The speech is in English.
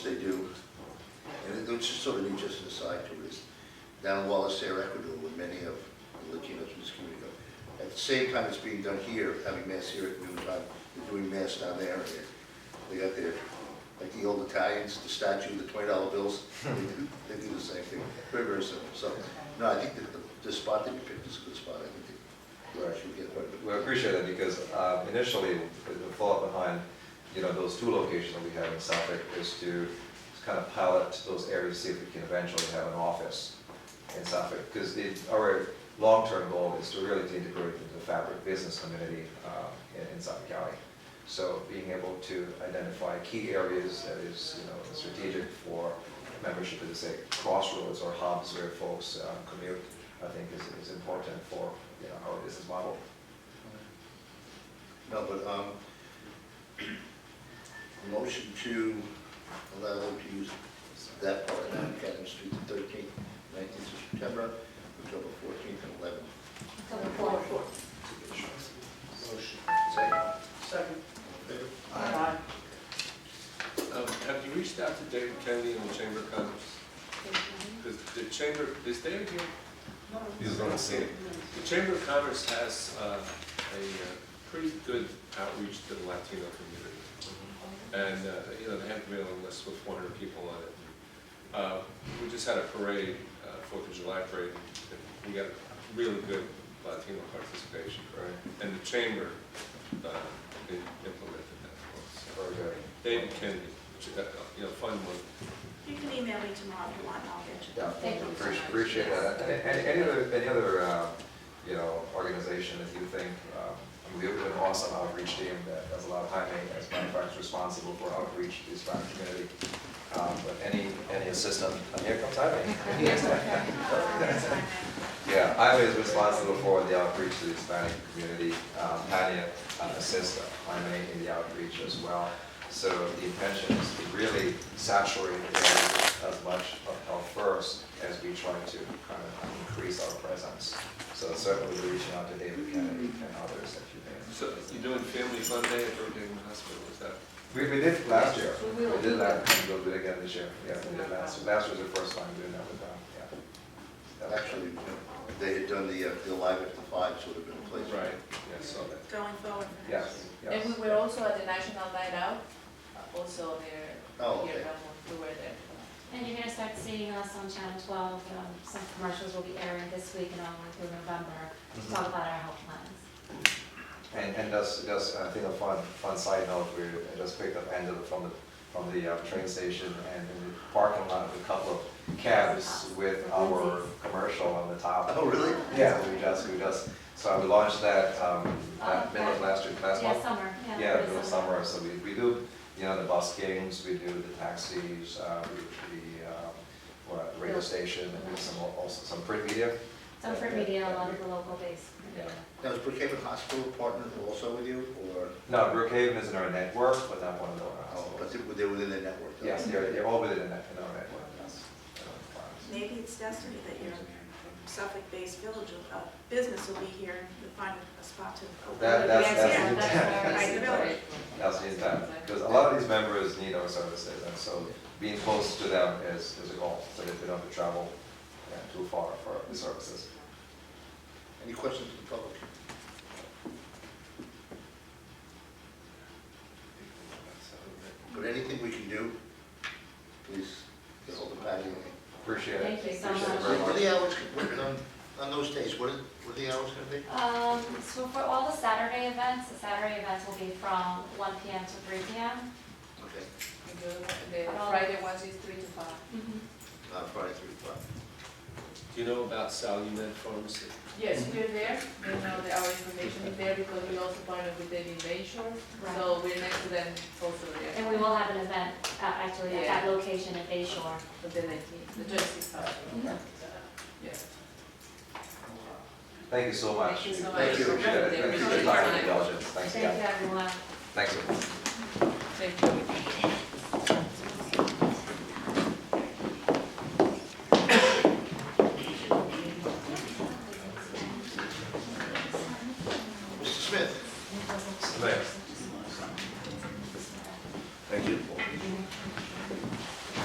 They do, and it- it's just sort of neat just an aside to is, down in Wallacear, Ecuador, where many of the Latinos in this community go. At the same time it's being done here, having mass here at noon time, they're doing mass down there, and they're- they got their, like the old Italians, the statue, the twenty dollar bills, they do, they do the same thing, very, very simple, so, no, I think that the, the spot that you picked is a good spot, I think that you should get quite a bit. We appreciate it because uh, initially, the the thought behind, you know, those two locations that we have in Suffolk is to kind of pilot those areas, see if we can eventually have an office in Suffolk. Because the, our long-term goal is to really to integrate into the fabric business community uh, in- in Suffolk County. So being able to identify key areas that is, you know, strategic for membership of, say, crossroads or hubs where folks uh, commute, I think is, is important for, you know, our business model. No, but, um, motion to allow them to use that part of Mount Academy Street, the thirteenth, nineteenth of September, October fourteenth and eleventh. October fourth. Motion. Second. Second. Favor? Aye. Um, Have you reached out to David Kennedy in the Chamber of Commerce? Because the Chamber, is David here? He's not seen. The Chamber of Commerce has uh, a uh, pretty good outreach to the Latino community. And, uh, you know, they have a mailing list with 400 people on it. Uh, We just had a parade, uh, Fourth of July parade, and we got really good Latino participation. Right. And the Chamber uh, im- implemented that for us. Very good. David Kennedy, which, uh, you know, fun one. You can email me tomorrow if you want, I'll get you. Yeah, Thank you so appreciate- appreciate much. that. And- and Any other, any other, uh, you know, organization that you think, um, I mean, we have an awesome outreach team that does a lot of high maintenance, manufacturers responsible for outreach to the Hispanic community. Um, But any, any assistance, and here comes Jaime. Yeah, Jaime is responsible for the outreach to the Hispanic community. Um, Tanya uh, assists Jaime in the outreach as well. So the intention is to really saturate the area as much of Health First as we try to kind of increase our presence. So certainly we're reaching out to David Kennedy and others that you may. So you're doing Family Fun Day at Brookhaven Hospital, is that? We, we did last year. We will. We did last, we'll do it again this year. Yeah, we did last, last was the first time doing that with them, yeah. That was- Actually, they had done the, uh, the live at the five sort of in place. Right, yeah, I saw that. Going forward for next Yes, yes. And we were also at the National Night Out, uh, also there. Oh, year okay. round, We were there. And you're gonna start seeing us on Channel 12, um, some commercials will be airing this week and all through November, to talk about our health plans. And, and just, just, I think a fun, fun side note, we just picked up Angela from the, from the uh, train station and in the parking lot, a couple of cabs with our commercial on the top. Oh, really? Yeah, we just, we just, so we launched that, um, at middle of last year, last Oh, Yeah, month. summer, yeah. Yeah, early during summer, so we, we do, you know, the bus games, we do the taxis, uh, we do the, um, what, radio station, and we do some, also some print media. Some print media, a lot of the local base. Yeah. Now, is Brookhaven Hospital partnered also with you, or, No, Brookhaven is in our network, but not one of the oh, but hospitals. they- they were within their network? though? Yes, they're, they're all within the net, in our network, yes. Maybe it's destiny that your Suffolk-based village, will- uh, business will be here and you'll find a spot to open. That, that's, Yes, that's the yeah. intent, I that's the know. intent, that's the intent, because a lot of these members need our services, and so being close to them is, is a goal, so that they don't have to travel yeah, too far for the services. Any questions from the public? But anything we can do, please, get hold of Patty. Appreciate it. Thank you so Appreciate it much. very What are the hours, what- on, on those days, what are, what are the hours gonna be? Um, so for all the Saturday events, the Saturday events will be from 1 PM to 3 PM. Okay, And the other one- The Friday ones is three to five. uh, Friday through Friday. Do you know about Salumet Pharmacy? Yes, we're there, we know that our information is there because we also partnered with David Bayshore, Right. so we're next to them also there. And we will have an event, uh, actually, at that Yeah. location at Bay Shore. But then I, the twenty-sixth, yes. Thank you so much. Thank you so much. Appreciate it. Thank you. Appreciate your time and indulgence. Thanks Thank you, again. everyone. Thanks. Thank you.